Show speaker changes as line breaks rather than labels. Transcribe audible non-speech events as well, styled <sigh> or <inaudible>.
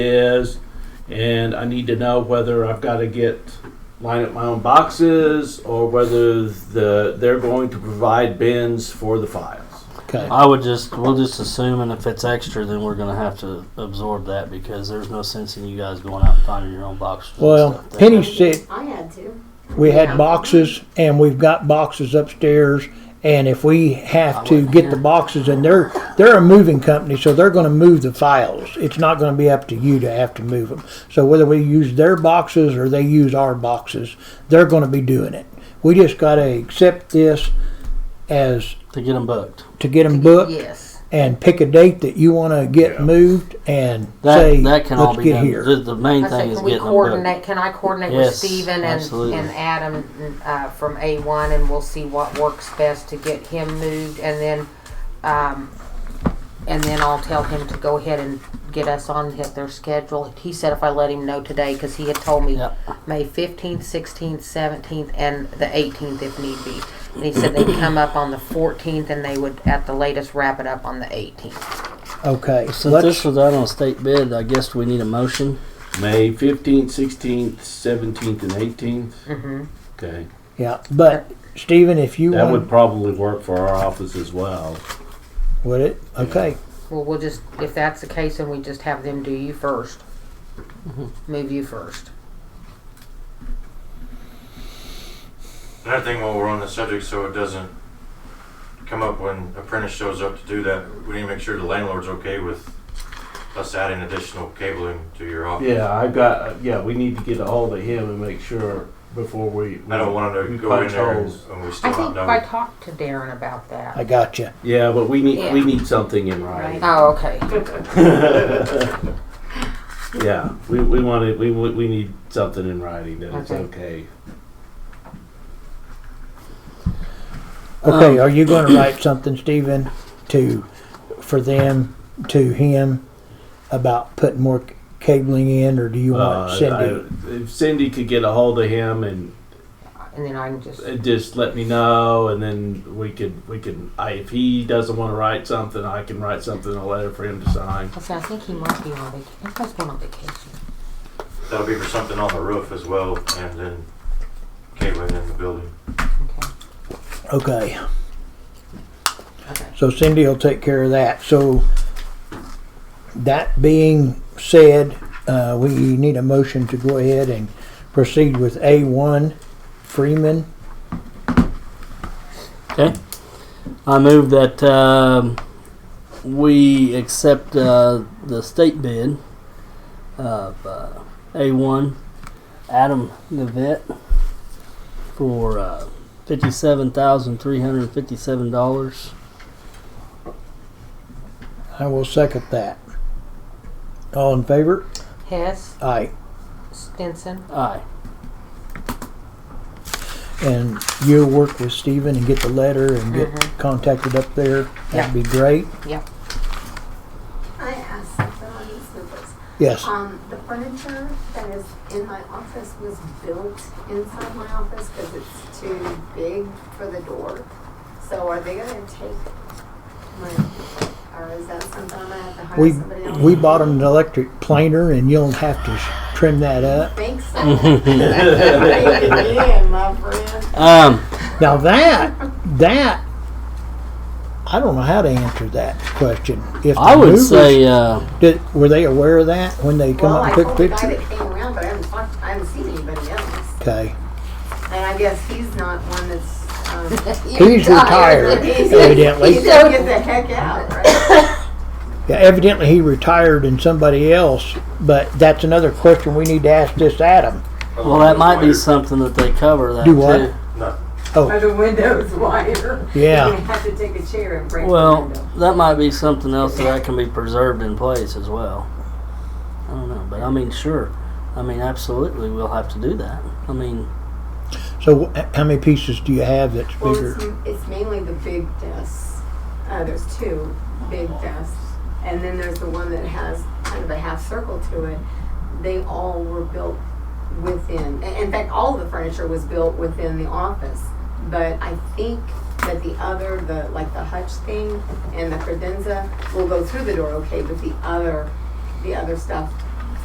is, and I need to know whether I've got to get line up my own boxes or whether the they're going to provide bins for the files.
Okay.
I would just, we'll just assume, and if it's extra, then we're gonna have to absorb that because there's no sense in you guys going out and finding your own boxes. and
Well,
stuff. That-
Penny said
I had to.
we had
Yeah.
boxes and we've got boxes upstairs. And if we have to
wasn't
get the
here.
boxes and they're, they're a moving company, so they're gonna move the files. It's not gonna be up to you to have to move them. So whether we use their boxes or they use our boxes, they're gonna be doing it. We just gotta accept this as,
To get them booked.
to get them booked
Yes.
and pick a date that you wanna get
Yeah.
moved and
That,
say,
that can all
let's
be
get
done. The,
here.
the main
I
thing
said,
is
can we
getting them booked.
coordinate, can I coordinate with
Yes,
Steven and,
absolutely.
and Adam uh, from A1 and we'll see what works best to get him moved and then, um, and then I'll tell him to go ahead and get us on hit their schedule. He said if I let him know today, cause he had told me
Yep.
May fifteenth, sixteenth, seventeenth, and the eighteenth if need be. And he said they'd come up on the fourteenth and they would at the latest wrap it up on the eighteenth.
Okay,
Since this
let's,
was out on state bid, I guess we need a motion.
May fifteenth, sixteenth, seventeenth, and 18th
Mm-hmm.
Okay,
yeah, but Stephen, if you
that
want.
would probably work for our office as well.
Would it? Okay.
Well, we'll just, if that's the case, then we just have them do you 1st Move you first.
Another thing while we're on the subject, so it doesn't come up when apprentice shows up to do that, we need to make sure the landlord's okay with us adding additional cabling to your office.
Yeah, I've got. Yeah, we need to get a hold of him and make sure before we. we
I don't want him
we
to go in
punch
there
holes.
and we
I
still
think
not
I
know.
talked to Darren about
I
that.
got you.
Yeah, but we need we
Yeah.
need something in writing.
Oh, okay.
yeah, we we wanted we we we need something in writing that it's
Okay.
okay.
Okay,
Um,
are you going to write something, Stephen, to for them to him about putting more c- cabling in, or do you want
Uh,
Cindy?
I- if Cindy could get a hold of him and
And then I can just,
uh, just let me know, and then we could we can. I, if he doesn't want to write something, I can write something a letter for him to sign.
I said, I think he might be on vacation. I think he's going on vacation.
That'll be for something on the roof as well, and then cabling in the building.
okay,
Okay. Okay.
so Cindy will take care of that. So that being said, uh, we need a motion to go ahead and proceed with A one Freeman.
Okay. I move that um, we accept uh, the state bid of uh, A1 Adam Navet for uh, $57,357.
I will second that. All in favor?
Hess,
Aye.
Stinson,
Aye.
and you'll work with Steven and get the letter and get
Mhm.
contacted up there.
Yeah.
That'd be great.
I asked something on these numbers.
Yes.
Um, the furniture that is in my office was built inside my office because it's too big for the door. So are they gonna take my, or is that something I'm gonna have to hire
We
somebody else?
we bought an electric planer and you'll have to s- trim that up. <laughs>
Thanks. Yeah, my friend.
Um,
Now that that I don't know how to answer that question. If
I
the
would
movers-
say uh,
did, were they aware of that when they come
Well,
up
I
and
told
took
the guy
pictures?
that came around, but I haven't talked, I haven't seen anybody else.
Okay.
And I guess he's not one that's, um,
He's
<laughs>
retired,
He's-
evidently.
he's gonna get the heck out, right?
Yeah, evidently he retired and somebody else, but that's another question we need to ask this Adam.
well, that might be something that they cover. That
Do what?
too.
Or the window's wider.
Yeah.
You're gonna have to take a chair and break the
Well,
window.
that might be something else that can be preserved in place as well. I don't know, but I mean, sure. I mean, absolutely, we'll have to do that. I mean,
So wh- how many pieces do you have that's
Well,
bigger?
it's, it's mainly the big desks. Uh, there's two big desks. And then there's the one that has kind of a half circle to it. They all were built within, in in fact, all of the furniture was built within the office. But I think that the other, the, like the hutch thing and the credenza will go through the door okay, but the other, the other stuff